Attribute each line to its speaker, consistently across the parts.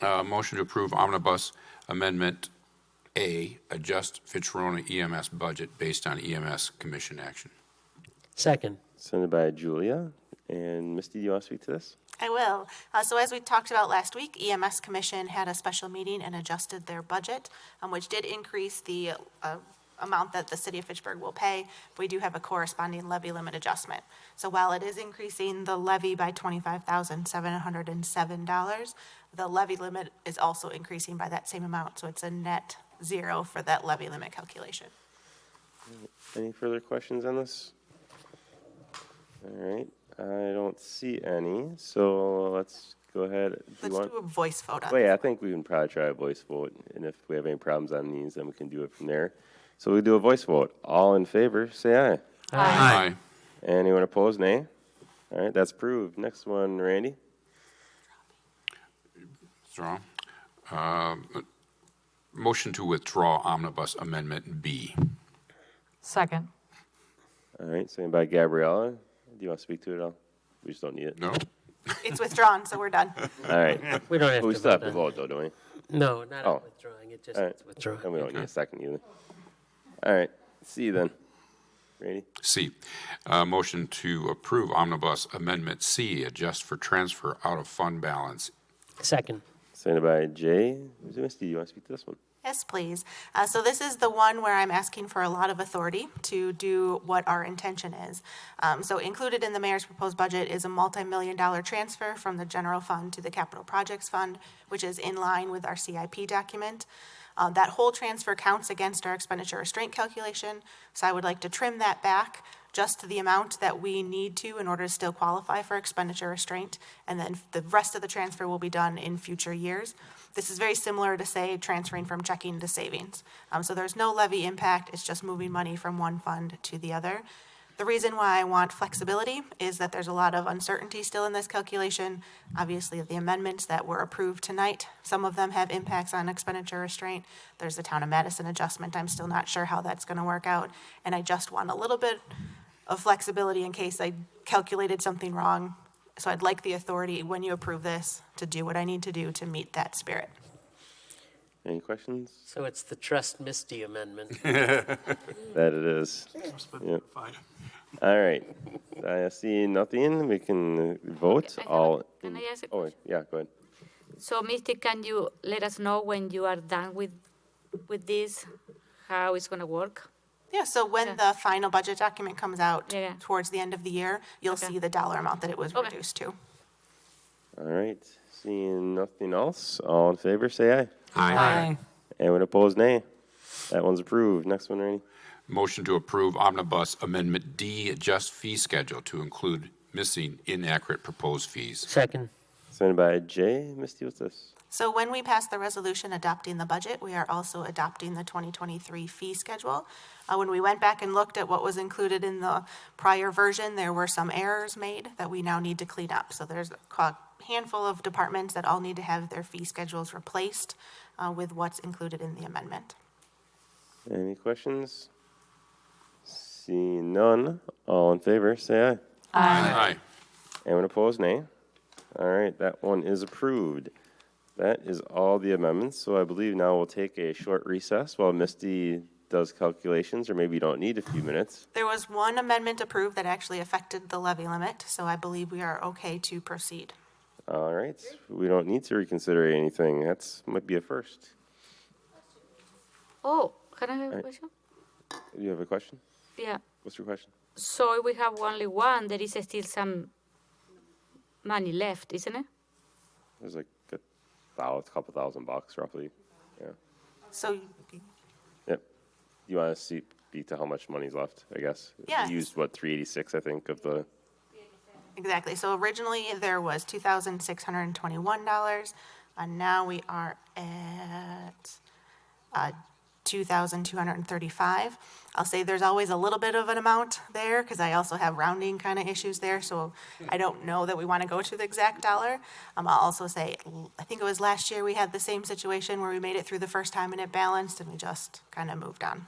Speaker 1: Uh, Motion to approve omnibus amendment A, adjust Fitzroy EMS budget based on EMS commission action.
Speaker 2: Second.
Speaker 3: Sent by Julia. And Misty, do you want to speak to this?
Speaker 4: I will. Uh, So as we talked about last week, EMS Commission had a special meeting and adjusted their budget, um, which did increase the uh, amount that the city of Fitchburg will pay. We do have a corresponding levy limit adjustment. So while it is increasing the levy by $25,707, the levy limit is also increasing by that same amount. So it's a net zero for that levy limit calculation.
Speaker 3: Any further questions on this? All right, I don't see any, so let's go ahead. Do you
Speaker 4: Let's
Speaker 3: want-
Speaker 4: do a voice vote on
Speaker 3: Wait,
Speaker 4: this.
Speaker 3: I think we can probably try a voice vote, and if we have any problems on these, then we can do it from there. So we do a voice vote. All in favor, say aye.
Speaker 1: Aye.
Speaker 3: Anyone opposed, nay? All right, that's approved. Next one, Randy.
Speaker 1: Withdraw. Uh, Motion to withdraw omnibus amendment B.
Speaker 5: Second.
Speaker 3: All right, sent by Gabriella. Do you want to speak to it at all? We just don't need it.
Speaker 1: No?
Speaker 4: It's withdrawn, so we're done.
Speaker 3: All right,
Speaker 2: We don't have to.
Speaker 3: but we still have to
Speaker 2: on-
Speaker 3: vote though, don't we?
Speaker 2: No, not
Speaker 3: Oh.
Speaker 2: on withdrawing. It just
Speaker 3: All right.
Speaker 2: it's withdrawing.
Speaker 3: And we don't need a second either. All right, see you then. Randy?
Speaker 1: C, uh, motion to approve omnibus amendment C, adjust for transfer out of fund balance.
Speaker 2: Second.
Speaker 3: Sent by Jay Zemisky. You want to speak to this one?
Speaker 4: Yes, please. Uh, So this is the one where I'm asking for a lot of authority to do what our intention is. Um, So included in the mayor's proposed budget is a multi-million dollar transfer from the general fund to the capital projects fund, which is in line with our CIP document. Uh, That whole transfer counts against our expenditure restraint calculation, so I would like to trim that back just to the amount that we need to in order to still qualify for expenditure restraint, and then the rest of the transfer will be done in future years. This is very similar to, say, transferring from checking to savings. Um, So there's no levy impact, it's just moving money from one fund to the other. The reason why I want flexibility is that there's a lot of uncertainty still in this calculation. Obviously, the amendments that were approved tonight, some of them have impacts on expenditure restraint. There's the town of Madison adjustment, I'm still not sure how that's gonna work out. And I just want a little bit of flexibility in case I calculated something wrong. So I'd like the authority, when you approve this, to do what I need to do to meet that spirit.
Speaker 3: Any questions?
Speaker 2: So it's the trust Misty amendment.
Speaker 3: That it is. Yep. All right. I see nothing. We can vote
Speaker 6: I have a-
Speaker 3: all.
Speaker 6: can I
Speaker 3: in-
Speaker 6: ask a
Speaker 3: Oh, yeah, go ahead.
Speaker 6: So, Misty, can you let us know when you are done with, with this, how it's gonna work?
Speaker 4: Yeah, so when the final budget document comes out
Speaker 6: Yeah, yeah.
Speaker 4: towards the end of the year, you'll
Speaker 6: Okay.
Speaker 4: see the dollar amount that it was
Speaker 6: Okay.
Speaker 4: reduced to.
Speaker 3: All right. Seeing nothing else, all in favor, say aye.
Speaker 5: Aye.
Speaker 3: Anyone opposed, nay. That one's approved. Next one, Randy.
Speaker 1: Motion to approve omnibus amendment D, adjust fee schedule to include missing inaccurate proposed fees.
Speaker 2: Second.
Speaker 3: Sent by Jay. Misty, what's this?
Speaker 4: So when we pass the resolution adopting the budget, we are also adopting the 2023 fee schedule. Uh, When we went back and looked at what was included in the prior version, there were some errors made that we now need to clean up. So there's a co- handful of departments that all need to have their fee schedules replaced uh, with what's included in the amendment.
Speaker 3: Any questions? Seeing none, all in favor, say aye.
Speaker 1: Aye.
Speaker 3: Anyone opposed, nay. All right, that one is approved. That is all the amendments, so I believe now we'll take a short recess while Misty does calculations, or maybe you don't need a few minutes.
Speaker 4: There was one amendment approved that actually affected the levy limit, so I believe we are okay to proceed.
Speaker 3: All right, we don't need to reconsider anything. That's, might be a first.
Speaker 6: Oh, can I have a question?
Speaker 3: Do you have a question?
Speaker 6: Yeah,
Speaker 3: What's your question?
Speaker 6: so if we have only one, there is still some money left, isn't it?
Speaker 3: There's like a thou, couple thousand bucks roughly. Yeah.
Speaker 4: So
Speaker 3: Yep. You want to see, speak to how much money's left, I guess?
Speaker 4: Yes.
Speaker 3: You used, what, 386, I think, of the,
Speaker 4: Exactly. So originally, there was two thousand six hundred and twenty-one dollars, and now we are at uh, two thousand two hundred and thirty-five. I'll say there's always a little bit of an amount there, because I also have rounding kind of issues there, so I don't know that we want to go to the exact dollar. Um, I'll also say, l- I think it was last year, we had the same situation where we made it through the first time and it balanced, and we just kind of moved on.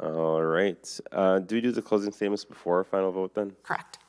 Speaker 3: all right. Uh, do we do the closing statements before our final vote then?
Speaker 4: Correct.